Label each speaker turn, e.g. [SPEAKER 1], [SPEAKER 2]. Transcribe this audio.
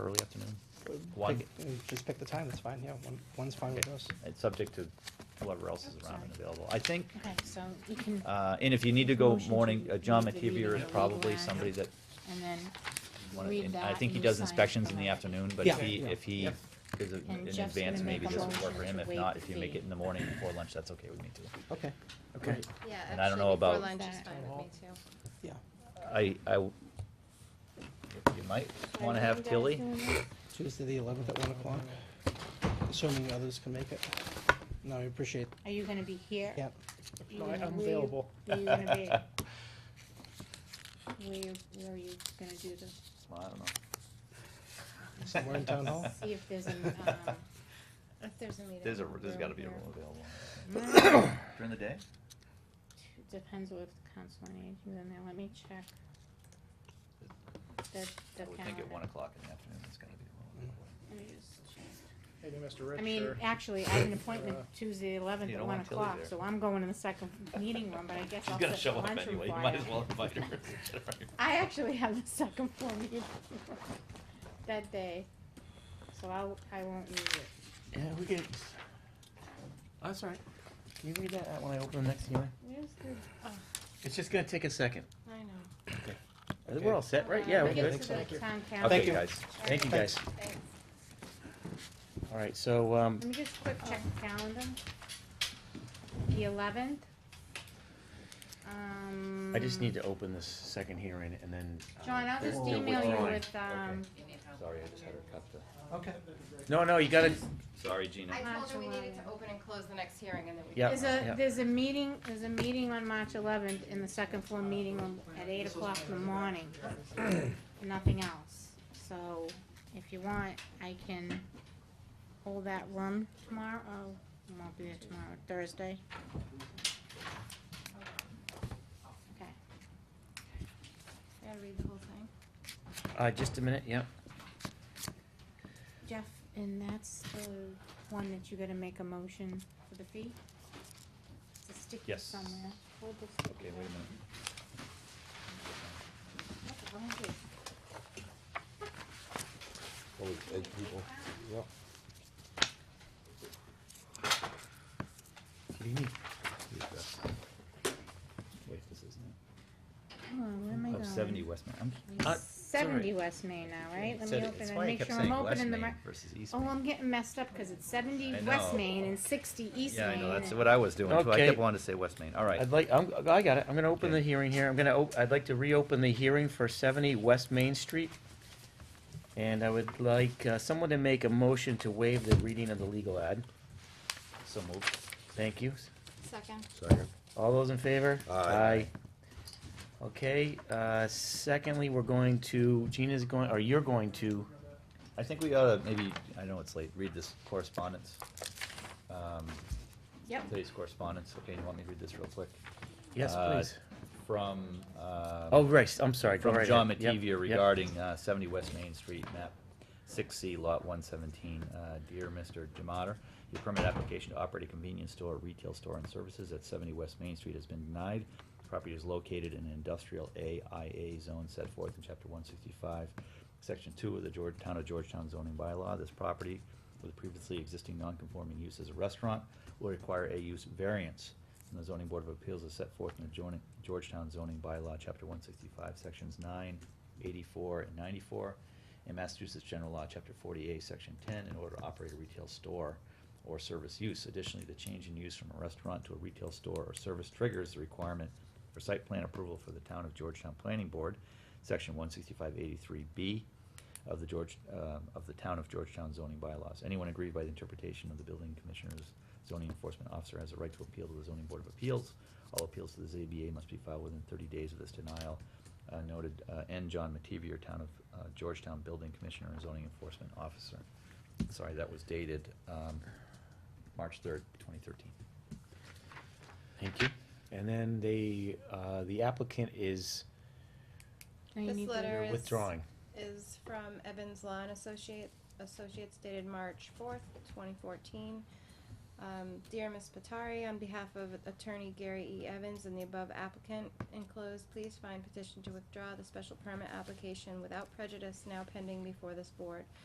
[SPEAKER 1] early afternoon? Why?
[SPEAKER 2] Pick- uh, Just pick the time, that's fine, yeah, one, one's fine with
[SPEAKER 1] Okay.
[SPEAKER 2] us.
[SPEAKER 1] It's subject to whoever else is around and available. I think,
[SPEAKER 3] Okay, so you can,
[SPEAKER 1] uh, and if you need to go
[SPEAKER 3] Motion to
[SPEAKER 1] morning, uh, John
[SPEAKER 3] leave the meeting
[SPEAKER 1] Mativier is
[SPEAKER 3] at legal
[SPEAKER 1] probably
[SPEAKER 3] hour.
[SPEAKER 1] somebody that,
[SPEAKER 3] and then
[SPEAKER 1] wanna-
[SPEAKER 3] read
[SPEAKER 1] and I
[SPEAKER 3] that
[SPEAKER 1] think
[SPEAKER 3] and
[SPEAKER 1] he
[SPEAKER 3] you
[SPEAKER 1] does
[SPEAKER 3] sign
[SPEAKER 1] inspections
[SPEAKER 3] from
[SPEAKER 1] in the
[SPEAKER 3] there.
[SPEAKER 1] afternoon, but
[SPEAKER 2] Yeah.
[SPEAKER 1] if he,
[SPEAKER 2] Yeah.
[SPEAKER 1] if he,
[SPEAKER 2] Yep.
[SPEAKER 1] because
[SPEAKER 3] And
[SPEAKER 1] in
[SPEAKER 3] Jeff's gonna
[SPEAKER 1] advance,
[SPEAKER 3] make
[SPEAKER 1] maybe
[SPEAKER 3] a
[SPEAKER 1] this would work for
[SPEAKER 3] motion
[SPEAKER 1] him.
[SPEAKER 3] to
[SPEAKER 1] If
[SPEAKER 3] waive
[SPEAKER 1] not,
[SPEAKER 3] the
[SPEAKER 1] if you make
[SPEAKER 3] fee.
[SPEAKER 1] it in the morning before lunch, that's okay with me too.
[SPEAKER 2] Okay,
[SPEAKER 4] Okay.
[SPEAKER 5] Yeah,
[SPEAKER 1] And I don't know
[SPEAKER 5] actually, before
[SPEAKER 1] about-
[SPEAKER 5] lunch is
[SPEAKER 3] That-
[SPEAKER 5] fine with me too.
[SPEAKER 2] yeah.
[SPEAKER 1] I, I, w- you might wanna have Tilly.
[SPEAKER 2] Tuesday, the eleventh at one o'clock, assuming others can make it. No, I appreciate,
[SPEAKER 3] Are you gonna be here?
[SPEAKER 2] yeah,
[SPEAKER 3] You
[SPEAKER 4] No, I-
[SPEAKER 3] gonna-
[SPEAKER 4] I'm
[SPEAKER 3] where you-
[SPEAKER 4] available.
[SPEAKER 3] Where you gonna be? Where you, where are you gonna do the,
[SPEAKER 1] Well, I don't know.
[SPEAKER 2] somewhere in town hall.
[SPEAKER 3] see if there's an, um,
[SPEAKER 5] If there's a meeting.
[SPEAKER 1] There's a, there's
[SPEAKER 3] room
[SPEAKER 1] gotta be a
[SPEAKER 3] here.
[SPEAKER 1] room available. During the day?
[SPEAKER 3] depends with council on aging, then they let me check the, the
[SPEAKER 1] I would think at one
[SPEAKER 3] calendar.
[SPEAKER 1] o'clock in the afternoon, it's gonna be a room
[SPEAKER 3] Let me just check.
[SPEAKER 4] Maybe Mr. Rich
[SPEAKER 3] I mean,
[SPEAKER 4] or-
[SPEAKER 3] actually, I have an appointment
[SPEAKER 4] Uh,
[SPEAKER 3] Tuesday eleventh
[SPEAKER 1] You
[SPEAKER 3] at
[SPEAKER 1] don't
[SPEAKER 3] one
[SPEAKER 1] want Tilly
[SPEAKER 3] o'clock,
[SPEAKER 1] there.
[SPEAKER 3] so I'm going in the second meeting room, but I guess
[SPEAKER 1] She's
[SPEAKER 3] I'll
[SPEAKER 1] gonna
[SPEAKER 3] set
[SPEAKER 1] show
[SPEAKER 3] the
[SPEAKER 1] up
[SPEAKER 3] lunchroom
[SPEAKER 1] anyway, you
[SPEAKER 3] fire.
[SPEAKER 1] might as well invite her.
[SPEAKER 3] I actually have the second floor meeting that day, so I'll, I won't use it.
[SPEAKER 4] Yeah, we could. Oh, That's all right. Can you read that out when I open the next hearing?
[SPEAKER 3] Where's the- oh,
[SPEAKER 4] It's just gonna take a second.
[SPEAKER 5] I know.
[SPEAKER 4] I think We're all set, right?
[SPEAKER 3] Hold
[SPEAKER 4] Yeah,
[SPEAKER 3] on,
[SPEAKER 4] we're
[SPEAKER 3] I'll get
[SPEAKER 4] good.
[SPEAKER 3] to
[SPEAKER 2] Thank
[SPEAKER 3] the
[SPEAKER 2] you.
[SPEAKER 3] town
[SPEAKER 1] Okay,
[SPEAKER 2] Thank you.
[SPEAKER 3] council.
[SPEAKER 1] guys.
[SPEAKER 4] Thank you, guys.
[SPEAKER 5] Thanks.
[SPEAKER 4] All right, so, um,
[SPEAKER 3] Let me just quick check the calendar. The eleventh. Um.
[SPEAKER 4] I just need to open this second hearing and then. uh,
[SPEAKER 3] John, I'll just
[SPEAKER 2] Oh,
[SPEAKER 4] we'll
[SPEAKER 3] email you
[SPEAKER 4] withdraw.
[SPEAKER 3] with, um,
[SPEAKER 1] Sorry, I just had her cut the.
[SPEAKER 2] Okay.
[SPEAKER 4] No, no, you gotta,
[SPEAKER 1] Sorry, Gina.
[SPEAKER 5] I told her we
[SPEAKER 3] March
[SPEAKER 5] needed to open and close the next hearing and then we.
[SPEAKER 4] Yeah.
[SPEAKER 3] There's
[SPEAKER 4] yeah.
[SPEAKER 3] a, there's a meeting, there's a meeting on March eleventh in the second floor meeting room at eight o'clock in the morning. Nothing else. So if you want, I can hold that room tomorrow, oh, I won't be there tomorrow, Thursday. Okay.
[SPEAKER 5] I Gotta read the whole thing.
[SPEAKER 4] uh, just a minute, yeah.
[SPEAKER 3] Jeff, and that's the one that you gotta make a motion for the fee? It's a sticky
[SPEAKER 1] Yes.
[SPEAKER 3] somewhere. Hold the
[SPEAKER 1] Okay,
[SPEAKER 3] sticky.
[SPEAKER 1] wait a minute.
[SPEAKER 3] That's the wrong page.
[SPEAKER 1] Oh,
[SPEAKER 6] Always edge people. Yep.
[SPEAKER 4] What do you need?
[SPEAKER 1] Wait, this isn't
[SPEAKER 3] Come on, where am I
[SPEAKER 1] it.
[SPEAKER 3] going?
[SPEAKER 1] Of Oh, seventy Westmere. I'm.
[SPEAKER 4] Uh,
[SPEAKER 3] Seventy
[SPEAKER 4] sorry.
[SPEAKER 3] West Main now, right? Let
[SPEAKER 1] Said it-
[SPEAKER 3] me open
[SPEAKER 1] that's
[SPEAKER 3] and
[SPEAKER 1] why I
[SPEAKER 3] make
[SPEAKER 1] kept
[SPEAKER 3] sure
[SPEAKER 1] saying
[SPEAKER 3] I'm opening the.
[SPEAKER 1] West Main
[SPEAKER 3] mar-
[SPEAKER 1] Versus East
[SPEAKER 3] Oh,
[SPEAKER 1] Main.
[SPEAKER 3] I'm getting messed up because it's seventy
[SPEAKER 1] I
[SPEAKER 3] West
[SPEAKER 1] know.
[SPEAKER 3] Main and sixty East Main.
[SPEAKER 1] Yeah, I know, that's
[SPEAKER 3] and-
[SPEAKER 1] what I was doing too. I
[SPEAKER 4] Okay.
[SPEAKER 1] kept wanting to say West Main. All right.
[SPEAKER 4] I'd like, I'm, I got it. I'm gonna open
[SPEAKER 1] Okay.
[SPEAKER 4] the hearing here. I'm gonna, op- I'd like to reopen the hearing for seventy West Main Street. And I would like uh, someone to make a motion to waive the reading of the legal ad.
[SPEAKER 1] So moved.
[SPEAKER 4] Thank you.
[SPEAKER 5] Second.
[SPEAKER 6] Second.
[SPEAKER 4] All those in favor?
[SPEAKER 6] Aye.
[SPEAKER 4] Okay, uh, secondly, we're going to, Gina's going, or you're going to,
[SPEAKER 1] I think we ought to maybe, I know it's late, read this correspondence. Um,
[SPEAKER 3] Yep,
[SPEAKER 1] Today's correspondence. Okay, you want me to read this real quick?
[SPEAKER 4] yes,
[SPEAKER 1] Uh,
[SPEAKER 4] please.
[SPEAKER 1] From, uh.
[SPEAKER 4] Oh, right, I'm sorry, go
[SPEAKER 1] From
[SPEAKER 4] right
[SPEAKER 1] John
[SPEAKER 4] ahead. Yep,
[SPEAKER 1] Mativia
[SPEAKER 4] yep.
[SPEAKER 1] regarding uh, 70 West Main Street, map 6C, lot 117. Uh, Dear Mr. Demater, your permit application to operate a convenience store, retail store, and services at 70 West Main Street has been denied. Property is located in an industrial AIA zone set forth in Chapter 165, Section 2 of the George- Town of Georgetown zoning bylaw. This property, with previously existing non-conforming use as a restaurant, will require a use variance and the zoning board of appeals is set forth in the joining- Georgetown zoning bylaw, chapter one sixty-five, sections 9, 84, and ninety-four, and Massachusetts general law, chapter forty-eight, section ten, in order to operate a retail store or service use. Additionally, the change in use from a restaurant to a retail store or service triggers the requirement for site plan approval for the town of Georgetown Planning Board, section one sixty-five eighty-three B of the George, um, of the town of Georgetown zoning bylaws. Anyone aggrieved by the interpretation of the building commissioner's zoning enforcement officer has a right to appeal to the zoning board of appeals. All appeals to the ZBA must be filed within thirty days of this denial. Uh, noted, uh, N. John Mativier, town of uh, Georgetown Building Commissioner and Zoning Enforcement Officer. Sorry, that was dated, um, March third, twenty thirteen.
[SPEAKER 4] Thank you. And then they, uh, the applicant is
[SPEAKER 3] now you
[SPEAKER 5] This
[SPEAKER 3] need the-
[SPEAKER 5] letter is-
[SPEAKER 4] withdrawing.
[SPEAKER 5] Is from Evans Law and Associate, Associates dated March fourth, twenty fourteen. Um, dear Ms. Patari, on behalf of Attorney Gary E. Evans and the above applicant enclosed, please find petition to withdraw the special permit application without prejudice now pending before this board.